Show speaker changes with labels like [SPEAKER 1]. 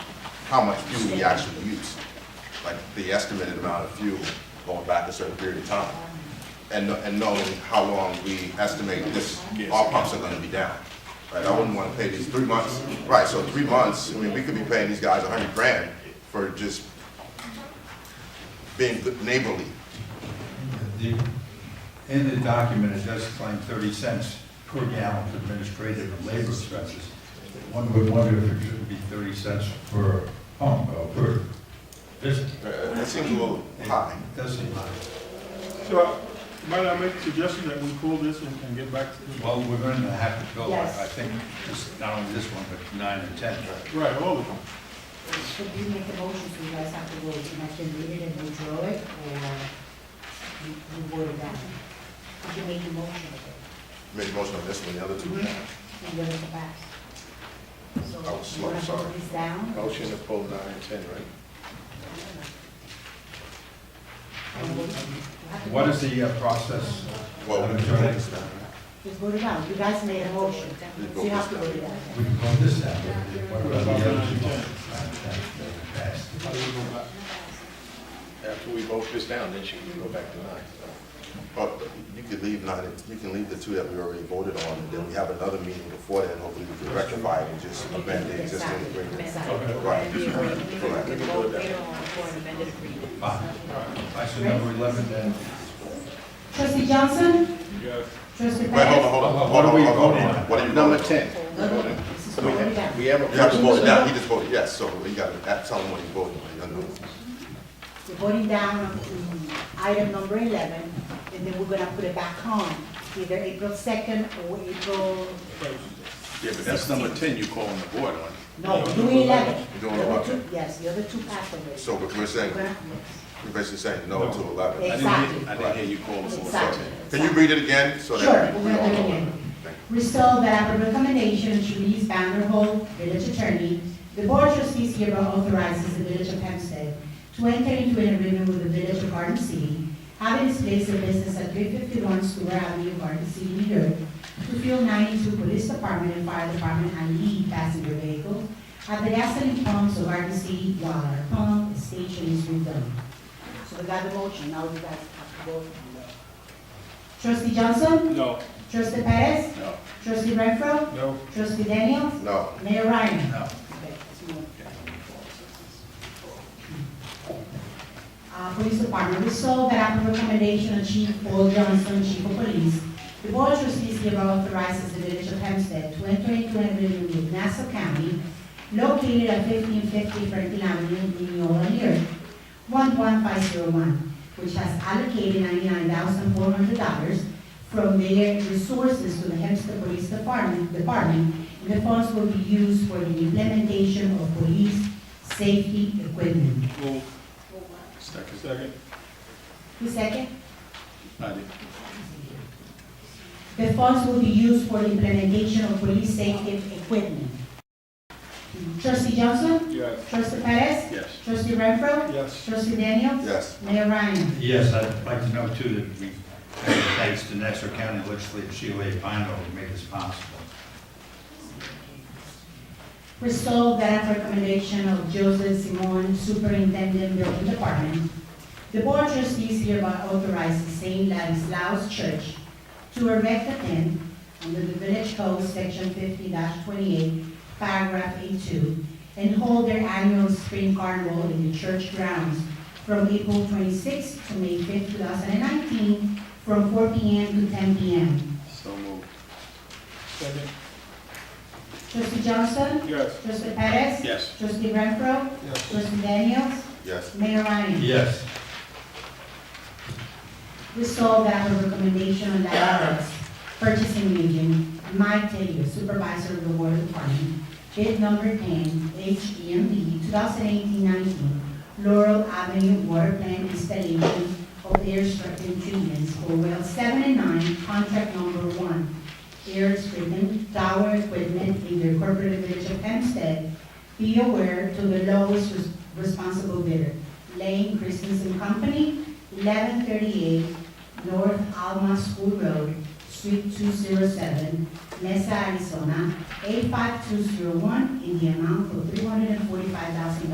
[SPEAKER 1] how much fuel we actually use, like the estimated amount of fuel going back a certain period of time, and, and knowing how long we estimate this, our pumps are gonna be down. Right, I wouldn't wanna pay these three months, right, so three months, I mean, we could be paying these guys a hundred grand for just being good neighborly.
[SPEAKER 2] The- In the document, it does claim 30 cents per gallon for administrative and labor expenses. One would wonder if it shouldn't be 30 cents per pump, or per visit.
[SPEAKER 1] Uh, It seems a little high.
[SPEAKER 2] It does seem high.
[SPEAKER 3] So, might I make a suggestion that we pull this and and get back to,
[SPEAKER 2] Well, we're going to have to go, I
[SPEAKER 4] Yes.
[SPEAKER 2] I think, this- not only this one, but nine and 10.
[SPEAKER 3] right, all of them?
[SPEAKER 4] Should you make a motion so you guys have to vote, you have to read it and withdraw it, or you you vote it down? Could you make a motion?
[SPEAKER 1] Make a motion on this one, the other two.
[SPEAKER 4] And then it's passed. So
[SPEAKER 1] I was slow,
[SPEAKER 4] you wanna vote
[SPEAKER 1] sorry.
[SPEAKER 4] this down?
[SPEAKER 5] Oh, Motion to pull nine and ten, right?
[SPEAKER 4] And vote- you have to
[SPEAKER 2] What
[SPEAKER 4] vote.
[SPEAKER 2] is the uh, process?
[SPEAKER 1] Well, we
[SPEAKER 2] Madam Chair?
[SPEAKER 4] Just vote it out, you guys made a motion, so you have to vote it down.
[SPEAKER 2] We can vote this out. What about the other two?
[SPEAKER 3] Nine
[SPEAKER 2] Passed.
[SPEAKER 5] After we vote this down, then she can go back to nine.
[SPEAKER 1] But you could leave nine, you can leave the two that we already voted on, and then we have another meeting before that, and hopefully we can rectify it and just amend the existing agreement. Right. Correct.
[SPEAKER 2] Fine. Item number 11 then.
[SPEAKER 4] Trustee Johnson?
[SPEAKER 3] Yes.
[SPEAKER 4] Trustee
[SPEAKER 1] Wait, hold on,
[SPEAKER 4] Perez?
[SPEAKER 1] hold on,
[SPEAKER 2] What
[SPEAKER 1] hold
[SPEAKER 2] are
[SPEAKER 1] on,
[SPEAKER 2] we
[SPEAKER 1] hold
[SPEAKER 2] voting
[SPEAKER 1] on,
[SPEAKER 2] on?
[SPEAKER 1] what are you
[SPEAKER 5] Number
[SPEAKER 1] voting?
[SPEAKER 5] ten.
[SPEAKER 4] This is voted down.
[SPEAKER 5] We have a.
[SPEAKER 1] You have to vote it down, he just voted yes, so you gotta act- tell him what you voted, you gotta do it.
[SPEAKER 4] We're voting down on um, item number 11, and then we're going to put it back on, either April 2nd or April,
[SPEAKER 5] Yeah, but that's number ten you calling the board on.
[SPEAKER 4] no, June
[SPEAKER 1] You're
[SPEAKER 4] 11.
[SPEAKER 1] doing it
[SPEAKER 4] The other
[SPEAKER 1] about
[SPEAKER 4] two- Yes, the other two passed already.
[SPEAKER 1] So we're we're saying,
[SPEAKER 4] We're gonna-
[SPEAKER 1] we're basically saying no to
[SPEAKER 4] Yeah.
[SPEAKER 1] eleven.
[SPEAKER 5] I didn't hear, I didn't hear you call the board.
[SPEAKER 4] Exactly.
[SPEAKER 1] Can you read it again, so
[SPEAKER 4] Sure,
[SPEAKER 1] that we
[SPEAKER 4] we're
[SPEAKER 1] we all
[SPEAKER 4] gonna do it
[SPEAKER 1] know?
[SPEAKER 4] again. Resolved that on recommendation of Denise Vanderhold, village attorney, the board of trustees hereby authorizes the village of Hempstead to enter into an agreement with the village of Garden City, having its place of business at three fifty-one Stewart Avenue, Garden City, New York, to fuel ninety-two police department and fire department and lead passenger vehicles at the gasoline pumps of Garden City while our pump station is redone. So we got the motion, now we guys have to vote. Trustee Johnson?
[SPEAKER 3] No.
[SPEAKER 4] Trustee Perez?
[SPEAKER 2] No.
[SPEAKER 4] Trustee Renfro?
[SPEAKER 3] No.
[SPEAKER 4] Trustee Daniels?
[SPEAKER 1] No,
[SPEAKER 4] Mayor Ryan?
[SPEAKER 2] No.
[SPEAKER 4] Okay, let's move. Uh, Police Department, resolved that upon recommendation of Chief Paul Johnson, Chief of Police, the Board of Trustees hereby authorizes the Village of Hempstead to enter into an agreement with Nassau County located at fifteen fifty Franklin Avenue, Mineola, New York, one one five zero one, which has allocated ninety-nine thousand four hundred dollars from their resources to the Hempstead Police Department, Department, and the funds will be used for the implementation of police safety equipment.
[SPEAKER 3] Move.
[SPEAKER 5] Second.
[SPEAKER 3] Second.
[SPEAKER 4] The second,
[SPEAKER 5] I did.
[SPEAKER 4] the funds will be used for the implementation of police safety equipment. Trustee Johnson?
[SPEAKER 3] Yes.
[SPEAKER 4] Trustee Perez?
[SPEAKER 5] Yes.
[SPEAKER 4] Trustee Renfro?
[SPEAKER 3] Yes.
[SPEAKER 4] Trustee Daniels?
[SPEAKER 1] yes,
[SPEAKER 4] Mayor Ryan?
[SPEAKER 2] Yes, I'd like to know too that we, thanks to Nassau County Legislative Sheila A. Pino who made this possible.
[SPEAKER 4] Resolved that at recommendation of Joseph Simon, Superintendent Building Department, the Board of Trustees hereby authorizes St. Ladislaus Church to erect a tent under the Village Code, Section fifty twenty-eight, paragraph A2, and hold their annual spring carnival in the church grounds from April twenty-sixth to May fifth, two thousand and nineteen, from four P M to ten P M.
[SPEAKER 5] So moved.
[SPEAKER 3] Second.
[SPEAKER 4] Trustee Johnson?
[SPEAKER 3] Yes.
[SPEAKER 4] Trustee Perez?
[SPEAKER 5] Yes.
[SPEAKER 4] Trustee Renfro?
[SPEAKER 3] Yes.
[SPEAKER 4] Trustee Daniels?
[SPEAKER 1] yes,
[SPEAKER 4] Mayor Ryan?
[SPEAKER 2] Yes.
[SPEAKER 4] Resolved that the recommendation on Dialogues Purchasing Agent Mike Taylor, Supervisor of the Water Department, bid number E 10, HEMB 2018-19, Laurel Avenue Water Plant Installation of Air Stripping Treatments for Well 7 and 9, Contract Number 1, Air Stripping Tower Equipment in the Incorporated Village of Hempstead, be aware to the lowest res- responsible bidder, Lane Christensen Company, 1138 North Alma School Road, Suite 207, Mesa, Arizona, 85201, in the amount of $345,000.